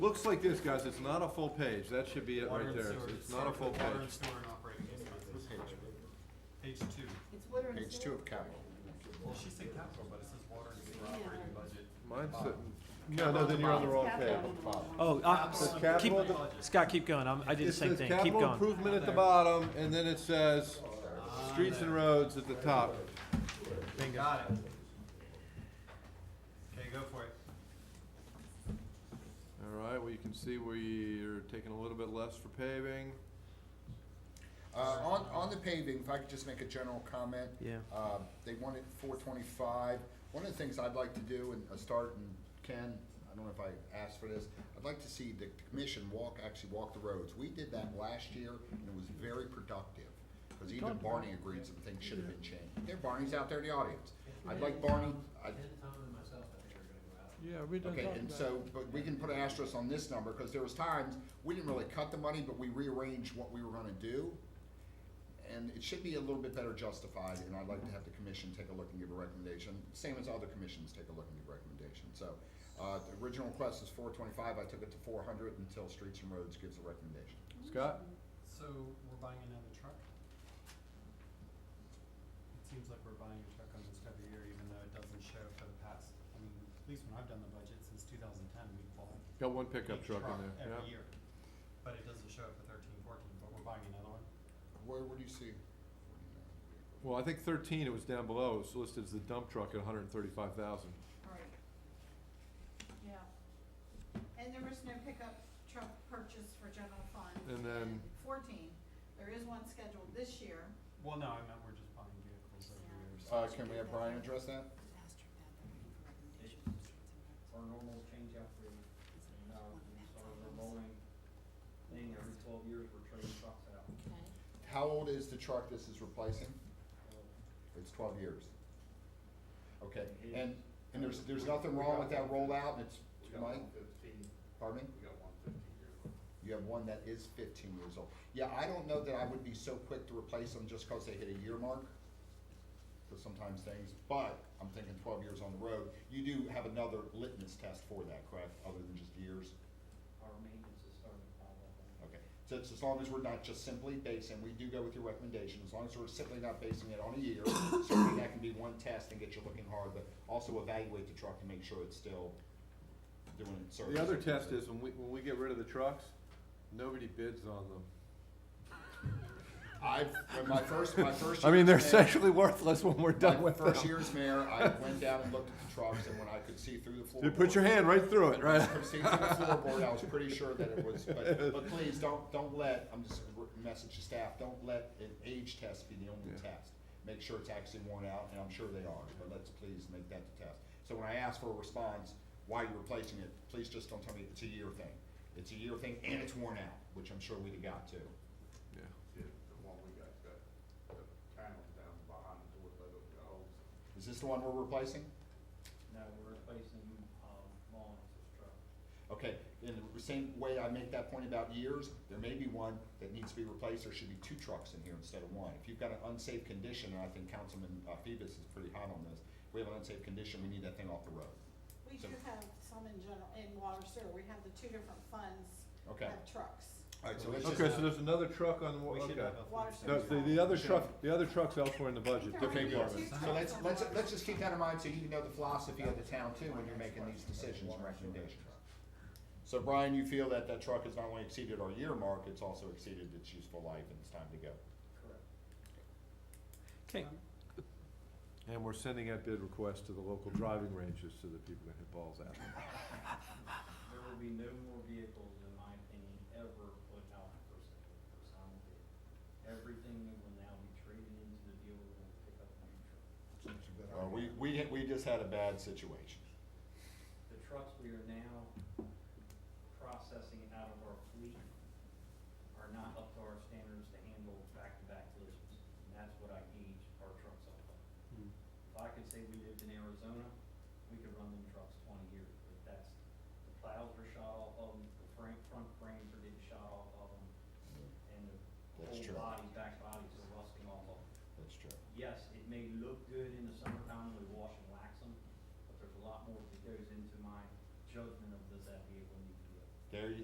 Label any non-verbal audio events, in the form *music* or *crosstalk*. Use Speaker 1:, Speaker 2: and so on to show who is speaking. Speaker 1: Looks like this, guys, it's not a full page, that should be it
Speaker 2: Water
Speaker 1: right
Speaker 2: and
Speaker 1: there,
Speaker 2: sewer.
Speaker 1: it's not a full
Speaker 2: Water and
Speaker 1: page.
Speaker 2: sewer and operating expenses. Page two.
Speaker 3: It's water and
Speaker 4: Page two
Speaker 3: sewer.
Speaker 4: of capital.
Speaker 2: Well, she said capital, but it says water and sewer operating budget.
Speaker 1: Mine's sitting, no, no, then you're on the wrong page.
Speaker 3: Capital on the wrong-
Speaker 5: Oh, uh,
Speaker 1: Says
Speaker 5: keep-
Speaker 1: capital at the-
Speaker 5: Scott, keep going. I'm, I did the
Speaker 1: It
Speaker 5: same
Speaker 1: says
Speaker 5: thing. Keep
Speaker 1: capital
Speaker 5: going.
Speaker 1: improvement at the bottom, and then it says streets and roads at the top.
Speaker 2: Bingo. Got it. Okay, go for it.
Speaker 1: All right, well, you can see we are taking a little bit less for paving.
Speaker 4: Uh, on, on the paving, if I could just make a general comment.
Speaker 5: Yeah.
Speaker 4: Um, they wanted four twenty-five. One of the things I'd like to do, and I start, and Ken, I don't know if I asked for this, I'd like to see the commission walk, actually walk the roads. We did that last year, and it was very productive, because even Barney agreed some things should have been changed. There, Barney's out there in the audience. I'd like Barney, I'd,
Speaker 1: Yeah, we
Speaker 4: Okay, and so, but we can put an asterisk on this number, because there was times, we didn't really cut the money, but we rearranged what we were gonna do. And it should be a little bit better justified, and I'd like to have the commission take a look and give a recommendation, same as other commissions take a look and give a recommendation, so. Uh, the original request is four twenty-five, I took it to four hundred until Streets and Roads gives a recommendation.
Speaker 1: Scott?
Speaker 2: So we're buying another truck? It seems like we're buying a truck almost every year, even though it doesn't show for the past, I mean, at least when I've done the budget since two thousand ten, we've bought
Speaker 1: Got one
Speaker 2: a
Speaker 1: pickup truck
Speaker 2: truck
Speaker 1: in there,
Speaker 2: every
Speaker 1: yeah.
Speaker 2: year. But it doesn't show up for thirteen, fourteen, but we're buying another one.
Speaker 4: Where, where do you see?
Speaker 1: Well, I think thirteen, it was down below, it's listed as the dump truck at hundred and thirty-five thousand.
Speaker 3: Right. Yeah. And there was no pickup truck purchase for general fund.
Speaker 1: And then-
Speaker 3: Fourteen, there is one scheduled this year.
Speaker 2: Well, no, I meant we're just buying vehicles every year, so.
Speaker 4: Uh, can we have Brian address that?
Speaker 6: our normal change out for, uh, sort of a rolling thing, every twelve years we're trading trucks out.
Speaker 4: How old is the truck this is replacing? It's twelve years. Okay, and, and there's, there's nothing wrong with that rollout, and it's, Mike,
Speaker 6: fifteen,
Speaker 4: pardon me?
Speaker 6: we got one fifteen years old.
Speaker 4: You have one that is fifteen years old. Yeah, I don't know that I would be so quick to replace them just because they hit a year mark. Because sometimes things, but I'm thinking twelve years on the road, you do have another litmus test for that, correct, other than just years?
Speaker 6: Our maintenance is starting to pile up. on it.
Speaker 4: Okay, so it's as long as we're not just simply basing, we do go with your recommendation, as long as we're simply not basing it on a year, *coughs* certainly that can be one test and get you looking hard, but also evaluate the truck and make sure it's still doing its service.
Speaker 1: The other test is when we, when we get rid of the trucks, nobody bids on them.
Speaker 4: I've, when my first,
Speaker 1: *laughs*
Speaker 4: my first.
Speaker 1: I mean, they're
Speaker 4: year as mayor-
Speaker 1: essentially worthless when we're done
Speaker 4: my
Speaker 1: with
Speaker 4: First
Speaker 1: them.
Speaker 4: year as mayor, I went down and looked at the trucks, and when I could see through the
Speaker 1: *laughs*
Speaker 4: floorboard.
Speaker 1: You put your hand right through it, right?
Speaker 4: could
Speaker 1: *laughs*
Speaker 4: see through the floorboard, I was pretty sure that it was, but, but please, don't, don't let, I'm just, gonna message to staff, don't let an age test be the only
Speaker 1: Yeah.
Speaker 4: test. Make sure it's actually worn out, and I'm sure they are, but let's please make that the test. So when I ask for a response, why you're replacing it, please just don't tell me it's a year thing. It's a year thing, and it's worn out, which I'm sure we'd have got to.
Speaker 1: Yeah.
Speaker 6: Yeah, The one we got, got, the panel down behind the door, let it go.
Speaker 4: Is this the one we're replacing?
Speaker 6: No, we're replacing, um, Mullins' truck.
Speaker 4: Okay, in the same way I make that point about years, there may be one that needs to be replaced, there should be two trucks in here instead of one. If you've got an unsafe condition, and I think Councilman uh, Phoebus is pretty hot on this, if we have an unsafe condition, we need that thing off the road.
Speaker 3: We
Speaker 4: So-
Speaker 3: do have some in general, in water sewer, we have the two different funds
Speaker 4: Okay.
Speaker 3: have trucks.
Speaker 4: Alright, so let's
Speaker 1: Okay,
Speaker 4: just,
Speaker 1: so there's another truck on, the wa-
Speaker 2: We should
Speaker 1: okay.
Speaker 2: have a.
Speaker 3: Water
Speaker 2: fleet.
Speaker 1: No,
Speaker 3: sewer.
Speaker 1: the, the other truck, the other truck's elsewhere in the budget.
Speaker 3: They're
Speaker 4: okay,
Speaker 3: only
Speaker 4: Barbara.
Speaker 3: two
Speaker 4: so let's,
Speaker 3: trucks on
Speaker 4: let's,
Speaker 3: water
Speaker 4: let's just keep that in mind, so you know the philosophy of the town too, when you're making these decisions and recommendations. So Brian, you feel that that truck has not only exceeded our year mark, it's also exceeded its useful life, and it's time to go.
Speaker 6: Correct.
Speaker 5: Okay.
Speaker 1: And we're sending out bid requests to the local driving ranges so that people can hit balls out.
Speaker 6: There will be no more vehicles, in my opinion, ever put out for sale, for sale bid. Everything will now be traded into the dealer and pick up a new truck.
Speaker 4: Uh, we, we, we just had a bad situation.
Speaker 6: The trucks we are now processing out of our fleet are not up to our standards to handle back-to-back collisions. And that's what I gauge our trucks off of.
Speaker 2: Hmm.
Speaker 6: If I could say we lived in Arizona, we could run them trucks twenty years, but that's, the plows are shot off of them, the front, front frames are getting shot off of them, and the
Speaker 4: That's
Speaker 6: whole
Speaker 4: true.
Speaker 6: body, back bodies are rusting off of them
Speaker 4: That's true.
Speaker 6: yes, it may look good in the summertime when we wash and wax them, but there's a lot more that goes into my judgment of does that vehicle need to be updated.
Speaker 4: There, you-